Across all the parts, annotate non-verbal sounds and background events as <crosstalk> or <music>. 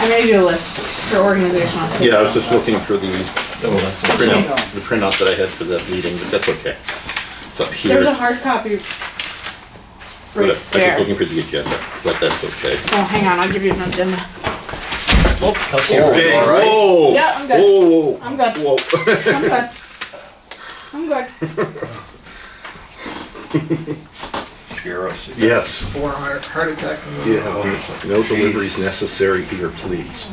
I made you a list for organizational. Yeah, I was just looking for the printout, Okay. the printout that I had for that meeting, but that's okay. It's up here. There's a hard copy But I- right I was there. looking for the agenda, but that's okay. Oh, hang on, I'll give you an agenda. Okay, whoa! Yeah, I'm good. Whoa, whoa. I'm good. Whoa. <laughs> I'm good. I'm good. Sheriff's. Yes, Four heart heart attacks. in the- yeah, no deliveries necessary here, please.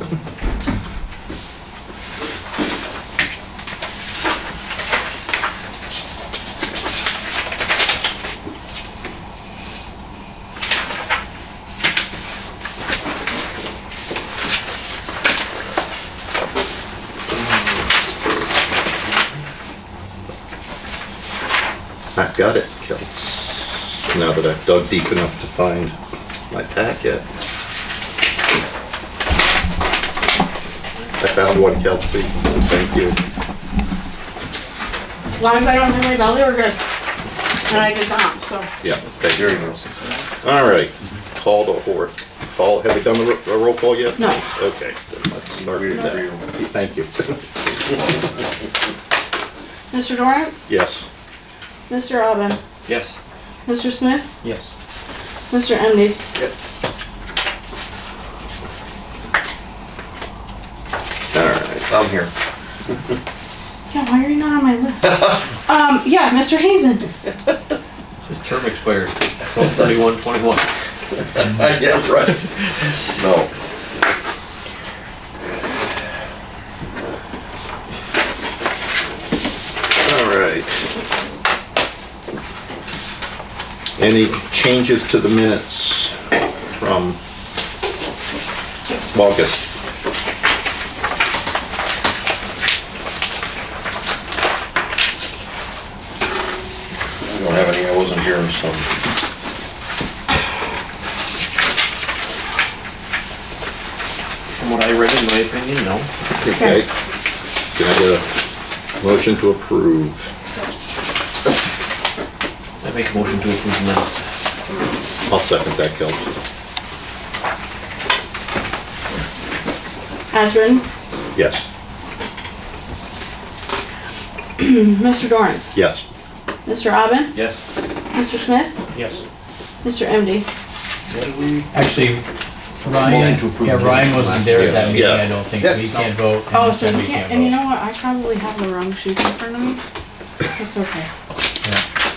I've got it, Kels. Now that I've dug deep enough to find my packet. I found one, Kelsey. Thank you. As long as I don't hit my belly, we're good. And I did not, so. Yeah, thank There you you. go. All right, call to order. Call, have we done the ro- a roll call yet? No. Okay, then let's start with that. Thank you. <laughs> Mr. Dorrance? Yes. Mr. Alvin? Yes. Mr. Smith? Yes. Mr. Emdy? Yes. All right. I'm here. Yeah, why are you not on my <laughs> list? Um, yeah, Mr. Hazen. His term expires twelve thirty-one twenty-one. Yeah, right. No. All right. Any changes to the minutes from August? We don't have any, I wasn't here, so. From what I read, in my opinion, no. Okay. Can I get a motion to approve? I make a motion to approve the minutes. I'll second that, Kelsey. As written. Yes, Mr. Dorrance? yes. Mr. Alvin? Yes. Mr. Smith? Yes. Mr. Emdy? What do we, Actually, Motion to approve. Ryan, yeah, Ryan wasn't there at Yeah. that meeting, Yeah. I don't think, so he Yes. can't vote. and Oh, he so said you we can't, and you vote. know what, I probably have the wrong sheet in front of me. That's okay.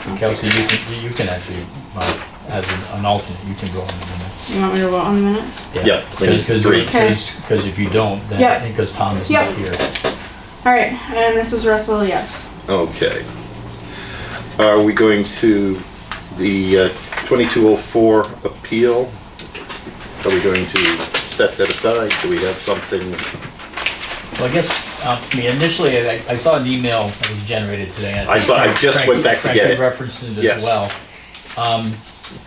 Yeah. Kelsey, you can, you- you can actually, uh, as an- an alternate, you can go on the minutes. You want me to vote on the minute? Yeah, we need Because, three. Okay. because if you don't, Yep. then, because Tom is Yep. not here. All right, and this is Russell, yes. Okay. Are we going to the uh, 2204 appeal? Are we going to set that aside? Do we have something? Well, I guess, um, I mean, initially, I, I saw an email that was generated today. and I saw- I think just Frank- went back to Frank get had it. referenced it Yes. as well. Um,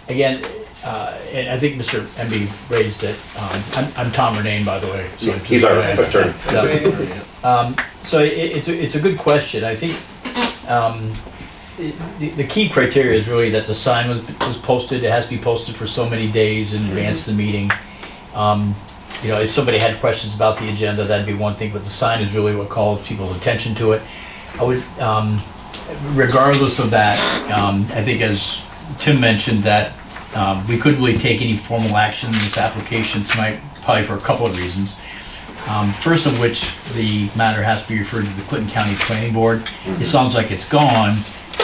again, uh, and I think Mr. MB raised it, um, I'm, I'm Tom Renane, by the way. so to He's the- our attorney. Yeah. Um, So i- i- it's, a- it's a good question. I think um, i- the the key criteria is really that the sign was, was posted, it has to be posted for so many days in advance of the meeting. Um, You know, if somebody had questions about the agenda, that'd be one thing, but the sign is really what calls people's attention to it. I would, um, regardless of that, um, I think as Tim mentioned, that um, we couldn't really take any formal action in this application tonight, probably for a couple of reasons. Um, First of which, the matter has to be referred to the Clinton County Planning Board. It sounds like it's gone.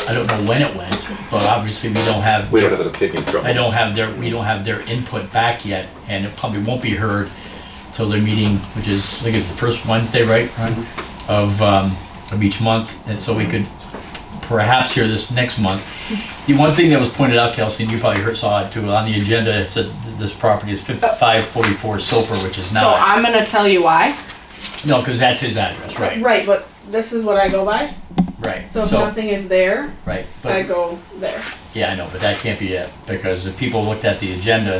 I don't know when it went, but obviously we don't have. We don't have an opinion from I don't have their, we don't have their input back yet, and it probably won't be heard till their meeting, which is, I think it's the first Wednesday, right? Ron? Of, um, of each month, and so we could perhaps hear this next month. The one thing that was pointed out, Kelsey, and you probably heard, saw it too, on the agenda, it said th- this property is fifty-five forty-four Soper, which is So not, I'm gonna tell you why. no, because that's his address, right, Right, but this is what I go by, right, so if so, nothing is there, right, I but, go there. yeah, I know, but that can't be it, because if people looked at the agenda